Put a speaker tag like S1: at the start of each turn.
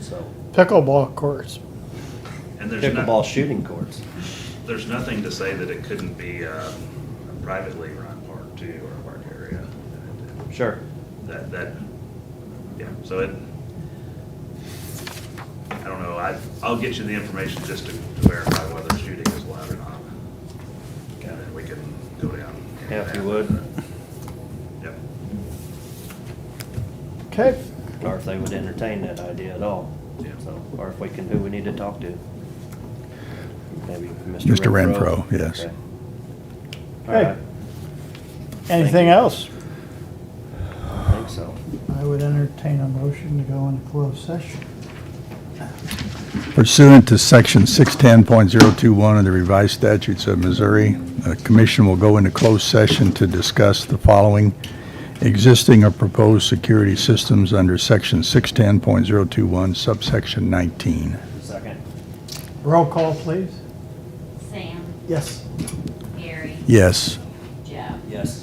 S1: so.
S2: Pickleball courts.
S3: And there's
S1: Pickleball
S3: not,
S1: shooting courts.
S3: there's nothing to say that it couldn't be uh, a privately run park too, or a park area.
S1: Sure.
S3: That, that, yeah, so it, I don't know, I, I'll get you the information just to to verify whether shooting is allowed or not. And then we can go down. into
S1: Yeah, if you
S3: that.
S1: would.
S3: Yep.
S2: Okay,
S1: Or if they would entertain that idea at all.
S3: Yeah.
S1: So, or if we can, who we need to talk to. Maybe Mr.
S4: Mr. Renfro, yes.
S1: Okay. All
S2: Okay.
S1: right,
S2: anything else?
S1: I think so.
S2: I would entertain a motion to go into closed session.
S4: Pursuant to Section 610.021 of the revised statutes of Missouri, the commission will go into closed session to discuss the following existing or proposed security systems under Section 610.021 subsection 19.
S1: Second.
S2: Roll call, please.
S5: Sam,
S2: Yes.
S5: Gary,
S4: Yes.
S5: Joe.
S1: Yes.